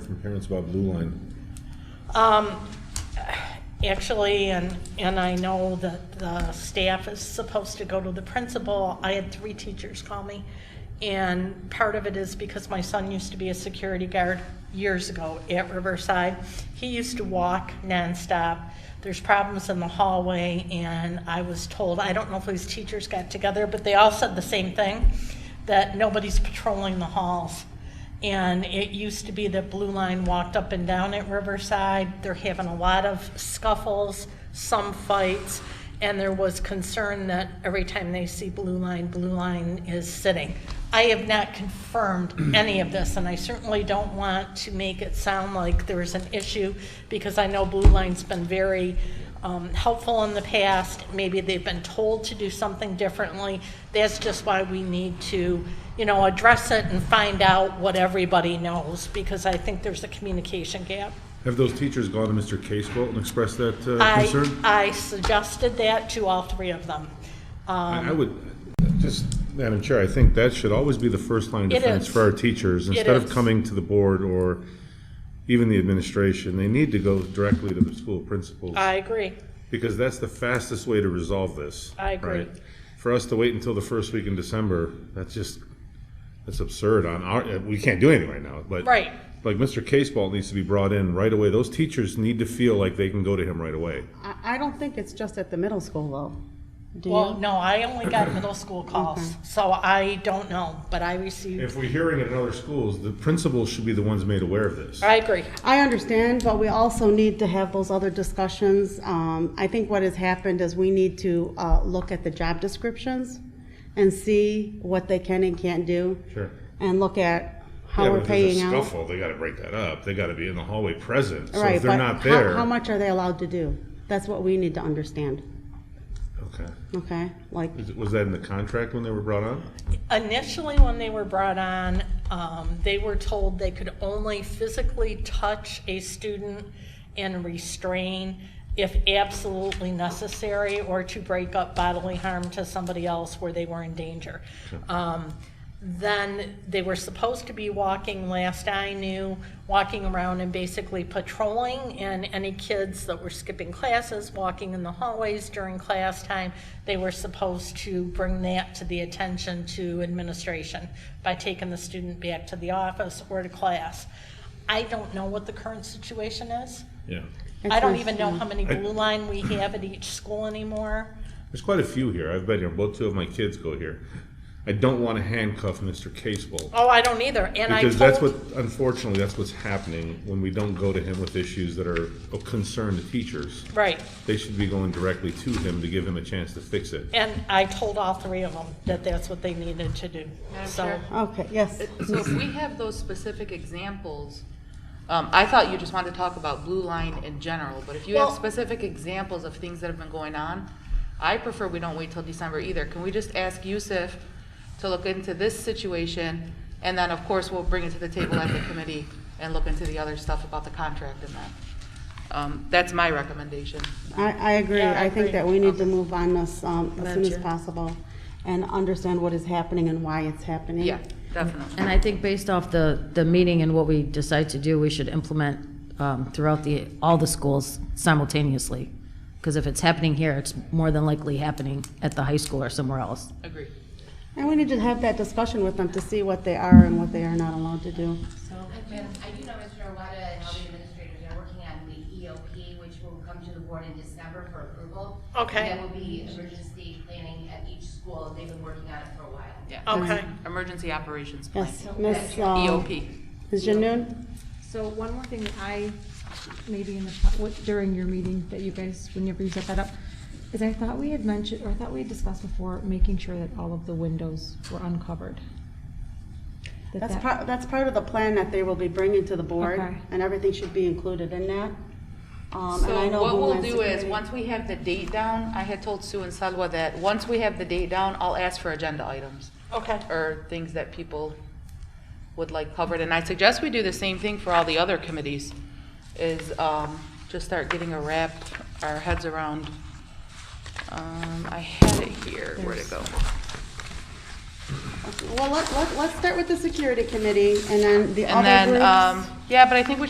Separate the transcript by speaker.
Speaker 1: from parents about Blue Line?
Speaker 2: Um, actually, and, and I know that the staff is supposed to go to the principal. I had three teachers call me. And part of it is because my son used to be a security guard years ago at Riverside. He used to walk nonstop. There's problems in the hallway, and I was told, I don't know if his teachers got together, but they all said the same thing, that nobody's patrolling the halls. And it used to be that Blue Line walked up and down at Riverside. They're having a lot of scuffles, some fights, and there was concern that every time they see Blue Line, Blue Line is sitting. I have not confirmed any of this, and I certainly don't want to make it sound like there is an issue, because I know Blue Line's been very um, helpful in the past. Maybe they've been told to do something differently. That's just why we need to, you know, address it and find out what everybody knows, because I think there's a communication gap.
Speaker 1: Have those teachers gone to Mr. Casewell and expressed that uh,
Speaker 2: I, um,
Speaker 1: concern?
Speaker 2: I suggested that to all three of them.
Speaker 1: I I would, just, Madam Chair, I think that should always be the first line of
Speaker 2: It
Speaker 1: defense
Speaker 2: is.
Speaker 1: for our teachers. Instead of
Speaker 2: is.
Speaker 1: coming to the board or even the administration, they need to go directly to the school principals.
Speaker 2: I agree.
Speaker 1: Because that's the fastest way to resolve this.
Speaker 2: I agree.
Speaker 1: right? For us to wait until the first week in December, that's just, that's absurd on our, uh, we can't do anything right now, but.
Speaker 2: Right.
Speaker 1: Like Mr. Caseball needs to be brought in right away. Those teachers need to feel like they can go to him right away.
Speaker 3: I, I don't think it's just at the middle school, though. Do you?
Speaker 2: Well, no, I only got middle school calls, so I don't know, but I received,
Speaker 1: If we're hearing it in other schools, the principals should be the ones made aware of this.
Speaker 2: I agree.
Speaker 3: I understand, but we also need to have those other discussions. Um, I think what has happened is we need to uh, look at the job descriptions and see what they can and can't do.
Speaker 1: Sure.
Speaker 3: And look at how
Speaker 1: Yeah, but
Speaker 3: we're
Speaker 1: if there's a
Speaker 3: paying out.
Speaker 1: Scuffle, they gotta break that up. They gotta be in the hallway present. So
Speaker 3: Right,
Speaker 1: if they're
Speaker 3: but
Speaker 1: not
Speaker 3: how-
Speaker 1: there.
Speaker 3: How much are they allowed to do? That's what we need to understand,
Speaker 1: Okay.
Speaker 3: okay? Like,
Speaker 1: Is it- Was that in the contract when they were brought on?
Speaker 2: Initially, when they were brought on, um, they were told they could only physically touch a student and restrain if absolutely necessary or to break up bodily harm to somebody else where they were in danger. Um, then they were supposed to be walking, last I knew, walking around and basically patrolling, and any kids that were skipping classes, walking in the hallways during class time, they were supposed to bring that to the attention to administration by taking the student back to the office or to class. I don't know what the current situation is.
Speaker 1: Yeah.
Speaker 2: I don't even know
Speaker 3: Interesting.
Speaker 2: how many blue line we have at each school anymore.
Speaker 1: There's quite a few here. I've been here. Both two of my kids go here. I don't want to handcuff Mr. Casewell.
Speaker 2: Oh, I don't either, and I told.
Speaker 1: Because that's what, unfortunately, that's what's happening when we don't go to him with issues that are of concern to teachers.
Speaker 2: Right.
Speaker 1: They should be going directly to him to give him a chance to fix it.
Speaker 2: And I told all three of them that that's what they needed to do.
Speaker 4: Madam
Speaker 2: So,
Speaker 4: Chair?
Speaker 3: okay, yes.
Speaker 4: So if we have those specific examples, um, I thought you just wanted to talk about Blue Line in general, but if you have
Speaker 2: Well-
Speaker 4: specific examples of things that have been going on, I prefer we don't wait till December either. Can we just ask Yusuf to look into this situation? And then, of course, we'll bring it to the table at the committee and look into the other stuff about the contract and that. Um, That's my recommendation.
Speaker 3: I, I agree.
Speaker 2: Yeah, I
Speaker 3: I think
Speaker 2: agree.
Speaker 3: that we need to move on this um, as soon as
Speaker 4: Madam Chair.
Speaker 3: possible and understand what is happening and why it's happening.
Speaker 4: Yeah, definitely.
Speaker 5: And I think based off the, the meeting and what we decide to do, we should implement um, throughout the, all the schools simultaneously. Because if it's happening here, it's more than likely happening at the high school or somewhere else.
Speaker 4: Agree.
Speaker 3: And we need to have that discussion with them to see what they are and what they are not allowed to do.
Speaker 6: I do know Mr. Owada and all the administrators are working on the EOP, which will come to the board in December for approval.
Speaker 2: Okay.
Speaker 6: And that will be emergency planning at each school, they've been working on it for a while.
Speaker 4: Yeah.
Speaker 2: okay,
Speaker 4: Emergency Operations Plan. E
Speaker 3: Yes, Ms. uh,
Speaker 4: EOP.
Speaker 3: Ms. Janoon?
Speaker 7: So one more thing that I, maybe in the, po- what- during your meeting that you guys, whenever you set that up, is I thought we had mentioned, or I thought we had discussed before, making sure that all of the windows were uncovered. That
Speaker 3: That's
Speaker 7: that-
Speaker 3: part, that's part of the plan that they will be bringing to the board
Speaker 7: Okay.
Speaker 3: and everything should be included in that. Um, and I
Speaker 4: So
Speaker 3: know
Speaker 4: what we'll
Speaker 3: Homeland
Speaker 4: do is,
Speaker 3: Security-
Speaker 4: once we have the date down, I had told Sue and Salwa that, once we have the date down, I'll ask for agenda items,
Speaker 2: okay.
Speaker 4: or things that people would like covered, and I suggest we do the same thing for all the other committees, is, um, just start getting a wrap, our heads around, um, I had it here, where'd it go?
Speaker 3: Well, let, let, let's start with the security committee and then the
Speaker 4: And
Speaker 3: other
Speaker 4: then,
Speaker 3: groups.
Speaker 4: um, yeah, but I think we should